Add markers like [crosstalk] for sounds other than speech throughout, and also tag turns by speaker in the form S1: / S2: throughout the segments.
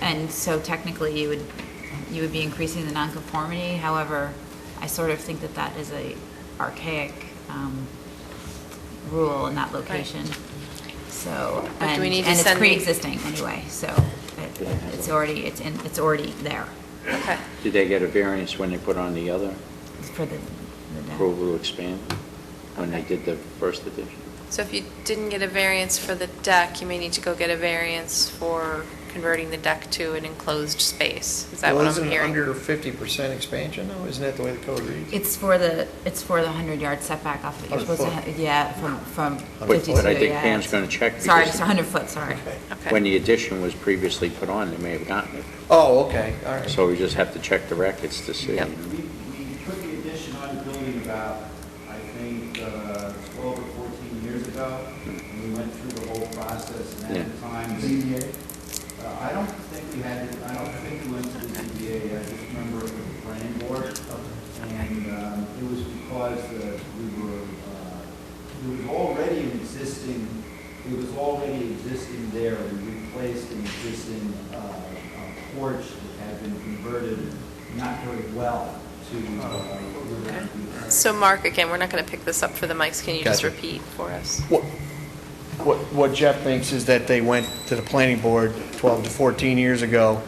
S1: And so technically, you would, you would be increasing the nonconformity. However, I sort of think that that is a archaic um, rule in that location. So,
S2: But do
S1: and
S2: we need
S1: and
S2: to
S1: it's
S2: send the-
S1: pre-existing anyway, so it- it's already, it's in, it's already there
S2: Okay.
S3: Did they get a variance when they put on the other
S1: for the, the deck.
S3: approval to expand, when they did the first edition?
S2: So if you didn't get a variance for the deck, you may need to go get a variance for converting the deck to an enclosed space. Is that what I'm hearing?
S4: Well, isn't it under 50% expansion, though? Isn't that the way the code reads?
S1: It's for the, it's for the 100-yard setback off, that you're
S4: 100
S1: supposed to,
S4: foot.
S1: ha- yeah, from, from
S4: But-
S1: 52,
S4: but
S3: I think
S1: yeah,
S3: Pam's
S1: it's-
S3: gonna check
S1: Sorry,
S3: because-
S1: it's 100 foot, sorry.
S4: Okay.
S2: Okay.
S3: When the addition was previously put on, they may have gotten it.
S4: Oh, okay, all right.
S3: So we just have to check the records to see.
S2: Yep.
S5: We, we put the addition on the building about, I think, uh, twelve or fourteen years ago, and we went through the whole process, and at the
S3: Yeah.
S5: time, ZBA, uh, I don't think we had, I don't think we went to the ZBA, I just remember it was the planning board, and, um, it was because uh we were, uh, it was already an existing, it was already existing there, we replaced an existing, uh, a porch that had been converted not very well to, uh, living.
S2: So Mark, again, we're not going to pick this up for the mics. Can you just
S4: Gotcha.
S2: repeat for us?
S4: What, what what Jeff thinks is that they went to the planning board 12 to 14 years ago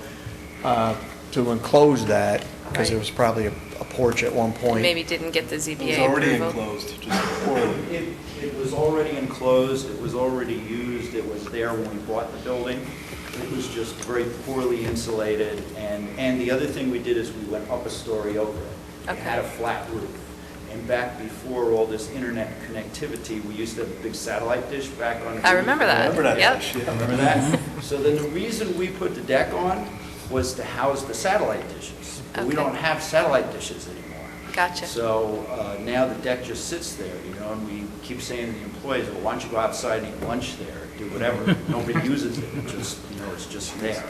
S4: uh, to enclose that, because there
S2: Right.
S4: was probably a a porch at one point.
S2: Maybe didn't get the ZBA approval?
S6: It was already enclosed, just poorly.
S5: It, it was already enclosed, it was already used, it was there when we bought the building. It was just very poorly insulated, and, and the other thing we did is we went up a story over it. It had a
S2: Okay.
S5: flat roof. And back before all this internet connectivity, we used to have a big satellite dish back on.
S2: I remember that.
S6: Remember that?
S2: Yep.
S6: shit?
S5: Remember that? So then the reason we put the deck on was to house the satellite dishes. But we
S2: Okay.
S5: don't have satellite dishes anymore.
S2: Gotcha.
S5: So uh, now the deck just sits there, you know, and we keep saying to the employees, well, why don't you go outside and eat lunch there, do whatever. Nobody uses it, it just, you know, it's just there.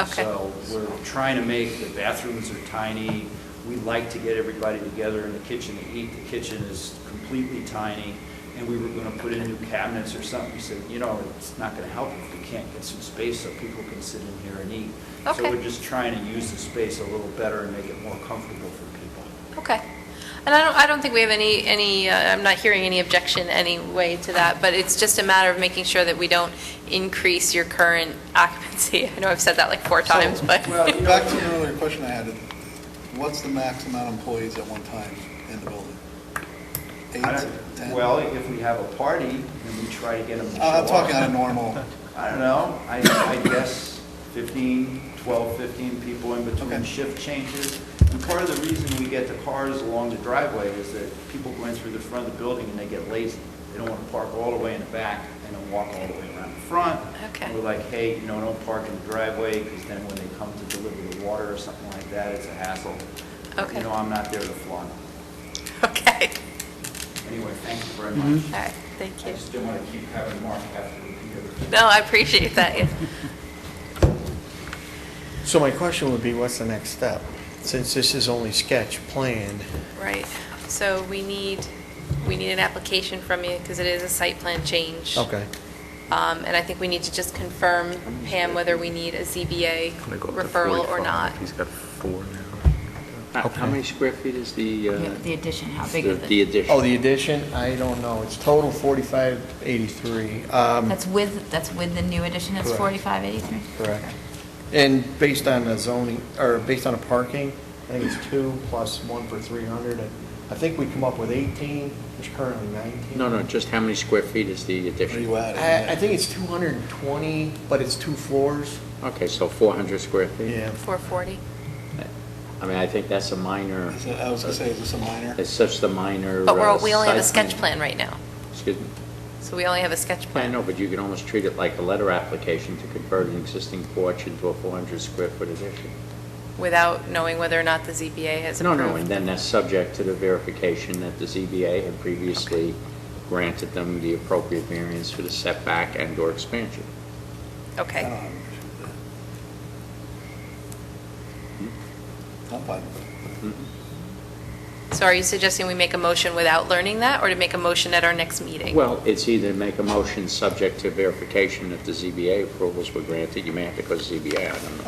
S2: Okay.
S5: So we're trying to make, the bathrooms are tiny. We like to get everybody together in the kitchen to eat. The kitchen is completely tiny. And we were going to put in new cabinets or something. We said, you know, it's not going to help if we can't get some space so people can sit in here and eat.
S2: Okay.
S5: So we're just trying to use the space a little better and make it more comfortable for people.
S2: Okay. And I don't, I don't think we have any, any, uh, I'm not hearing any objection anyway to that, but it's just a matter of making sure that we don't increase your current occupancy. [laughs] I know I've said that like four times, but.
S6: Well, Uh, back to the earlier question I had, what's the max amount of employees at one time in the building? Eight,
S5: I don't-
S6: 10?
S5: Well, if we have a party, then we try to get them to show
S6: I'm
S5: up.
S6: talking on
S5: [laughs]
S6: a normal,
S5: I don't know, I, I guess 15, 12, 15 people in between
S6: Okay.
S5: shift changes. And part of the reason we get the cars along the driveway is that people go in through the front of the building and they get lazy. They don't want to park all the way in the back and then walk all the way around the front.
S2: Okay.
S5: And We're like, hey, you know, don't park in the driveway, because then when they come to deliver the water or something like that, it's a hassle. But,
S2: Okay.
S5: You know, I'm not there to flaunt.
S2: [laughs] Okay.
S5: Anyway, thank you very much.
S2: All right, thank
S5: I
S2: you.
S5: just didn't want to keep having Mark have to repeat everything.
S2: No, I appreciate that, yeah.
S4: So my question would be, what's the next step? Since this is only sketch plan,
S2: Right. So we need, we need an application from you because it is a site plan change.
S4: okay.
S2: Um, And I think we need to just confirm, Pam, whether we need a ZBA referral or not.
S7: He's got four now.
S3: How- How many square feet is the,
S1: Yeah,
S3: uh,
S1: The addition, how big
S3: the
S1: is
S3: the
S1: it?
S3: addition?
S4: Oh, the addition, I don't know, it's total 4583. Um,
S1: That's with, that's with the new addition, it's
S4: Correct.
S1: 4583?
S4: Correct. And based on the zoning, or based on the parking, I think it's two plus one for 300. and I think we come up with 18, which currently 19.
S3: No, no, just how many square feet is the
S6: what are
S3: addition?
S6: you at?
S4: I, I think it's 220, but it's two floors.
S3: Okay, so 400 square feet?
S2: 440.
S3: I mean, I think that's a minor,
S6: Is it- I was gonna say, is this a minor?
S3: it's such the minor.
S2: But
S3: uh,
S2: we're, we only have a
S3: site
S2: sketch plan right now,
S3: Excuse me.
S2: so we only have a sketch
S3: I
S2: plan.
S3: know, but you can almost treat it like a letter application to convert an existing porch into a 400 square foot addition.
S2: Without knowing whether or not the ZBA has
S3: No,
S2: approved.
S3: no, and then that's subject to the verification that the ZBA had previously granted them the appropriate variance for the setback and/or expansion.
S6: I
S4: Um,
S6: don't
S2: Okay,
S6: have an issue with that. I'm fine with it.
S2: so are you suggesting we make a motion without learning that, or to make a motion at our next meeting?
S3: Well, it's either make a motion subject to verification that the ZBA approvals were granted, you may have to go to ZBA, I don't know.